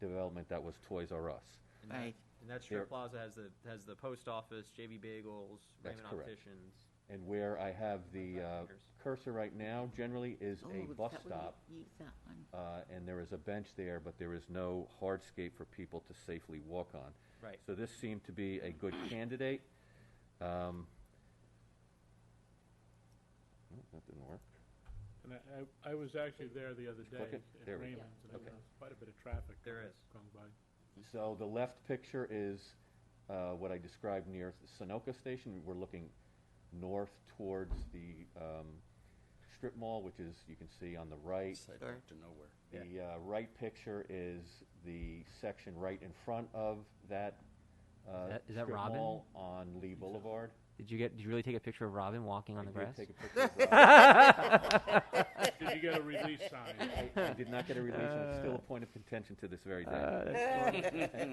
development that was Toys R Us. And that- Right. And that strip There- plaza has the, has the post office, JV Bagels, That's Raymond correct. Opticians. And where I have the uh, Fingers. cursor right now generally is a Oh, bus that would stop. Use that one. uh, and there is a bench there, but there is no hardscape for people to safely walk on. Right. So this seemed to be a good candidate. Um, oh, That didn't work. And I, I- I was actually there the other click day it? at There we go. Raymond's, and there Okay. was quite a bit of traffic. There going- is. Going by. So the left picture is uh, what I described near Sunoco Station. We're looking north towards the um, strip mall, which is, you can see on the right. Sure. to nowhere. The uh, right picture is the section right in front of that uh, Is that- is that strip Robin? mall on Lee Boulevard. Did you get? Did you really take a picture of Robin walking on the I did grass? take a picture of Did you get a release sign? Robin. I did not get a release, and it's still a point of contention to this very day.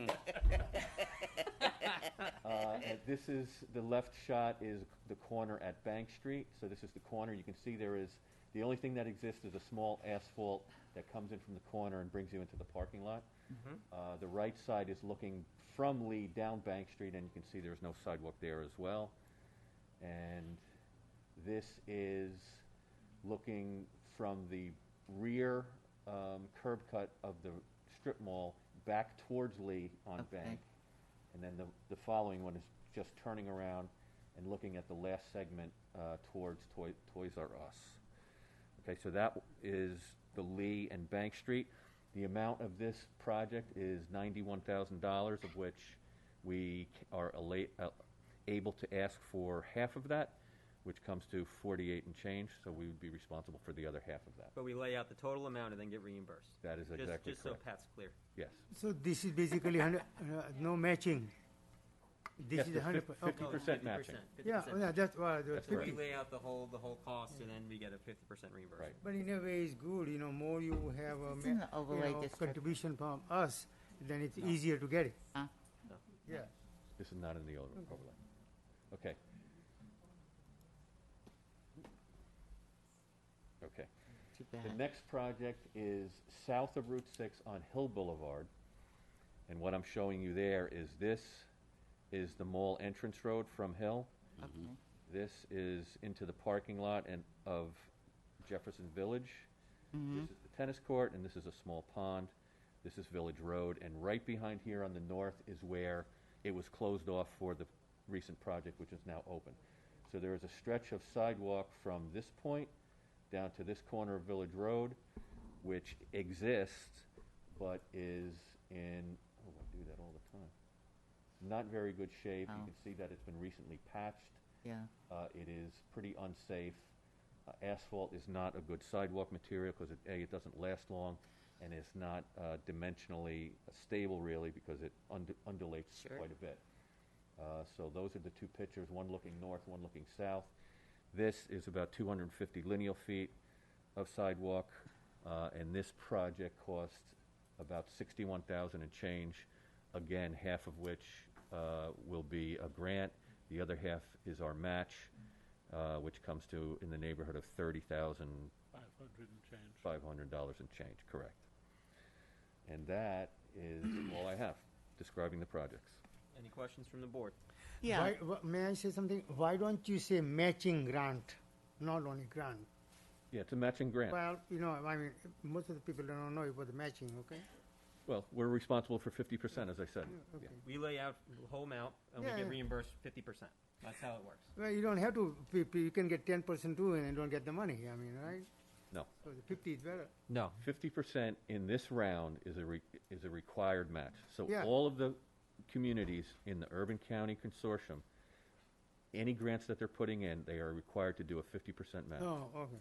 Uh, and This is, the left shot is the corner at Bank Street, so this is the corner. You can see there is, the only thing that exists is a small asphalt that comes in from the corner and brings you into the parking lot. Mm-hmm. Uh, The right side is looking from Lee down Bank Street, and you can see there's no sidewalk there as well. And this is looking from the rear um, curb cut of the strip mall back towards Lee on Okay. Bank. And then the, the following one is just turning around and looking at the last segment uh, towards Toy- Toys R Us. Okay, so that is the Lee and Bank Street. The amount of this project is ninety-one thousand dollars, of which we c- are ala- uh, able to ask for half of that, which comes to forty-eight and change, so we would be responsible for the other half of that. But we lay out the total amount and then get reimbursed. That is Just- exactly Just so correct. Pat's clear. Yes. So this is basically hundred, uh, no matching. This is hundred percent. Fifty percent matching. 50%, Yeah, 50%. yeah, that's why, That's So we correct. fifty. lay out the whole, the whole cost and then we get a fifty percent reimbursement. Right. But in a way, it's good, you know, more you have a, It's ma- in the you overlay know, district. contribution from us, then it's easier to get it. Huh? Yeah. This is not in the over- overlay. Okay. Okay. Too The bad. next project is south of Route 6 on Hill Boulevard. And what I'm showing you there is this is the mall entrance road from Hill. Okay. This is into the parking lot and of Jefferson Village. This is the tennis court, and this is a small pond. This is Village Road, and right behind here on the north is where it was closed off for the recent project, which is now open. So there is a stretch of sidewalk from this point down to this corner of Village Road, which exists, but is in, oh, I do that all the time. Not very good shape. You Oh. can see that it's been recently patched. Yeah. Uh, It is pretty unsafe. Uh, Asphalt is not a good sidewalk material because it, A, it doesn't last long, and it's not uh, dimensionally stable really because it undu- undulates Sure. quite a bit. Uh, So those are the two pictures, one looking north, one looking south. This is about 250 lineal feet of sidewalk, uh, and this project cost about 61,000 and change, again, half of which uh, will be a grant, the other half is our match, uh, which comes to in the neighborhood of $30,500 Five hundred and change. and change, correct. And that is all I have describing the projects. Any questions from the board? Yeah. Why, wh- may I say something? Why don't you say matching grant, not only grant? Yeah, it's a matching grant. Well, you know, I mean, most of the people don't know about the matching, okay? Well, we're responsible for 50%, as I said. Yeah. Okay. We lay out the whole amount and we Yeah, get yeah. reimbursed fifty percent. That's how it works. Well, you don't have to, p- p- you can get ten percent too and don't get the money, I mean, right? No. So the fifty is better. No. Fifty percent in this round is a, re- is a required match. So Yeah. all of the communities in the Urban County Consortium, any grants that they're putting in, they are required to do a fifty percent match. No, Oh, okay.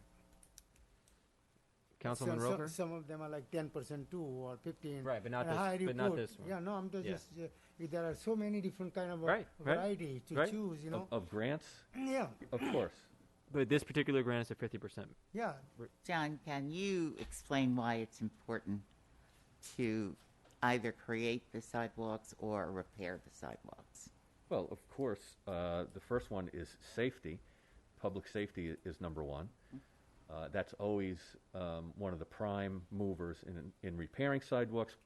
Councilman Some- some- Roker. Some of them are like ten percent too, or fifteen. Right, but not And this- how do you but not put- this one. Yeah, no, I'm just- Yeah. just, uh, there are so many different kind of uh, Right, right, variety to right. choose, you Of, know? of grants, Yeah, of course. But this particular grant is a fifty percent. yeah, John, can you explain why it's important to either create the sidewalks or repair the sidewalks? Well, of course, uh, the first one is safety. Public safety i- is number one. Uh, that's always um, one of the prime movers in, in repairing sidewalks,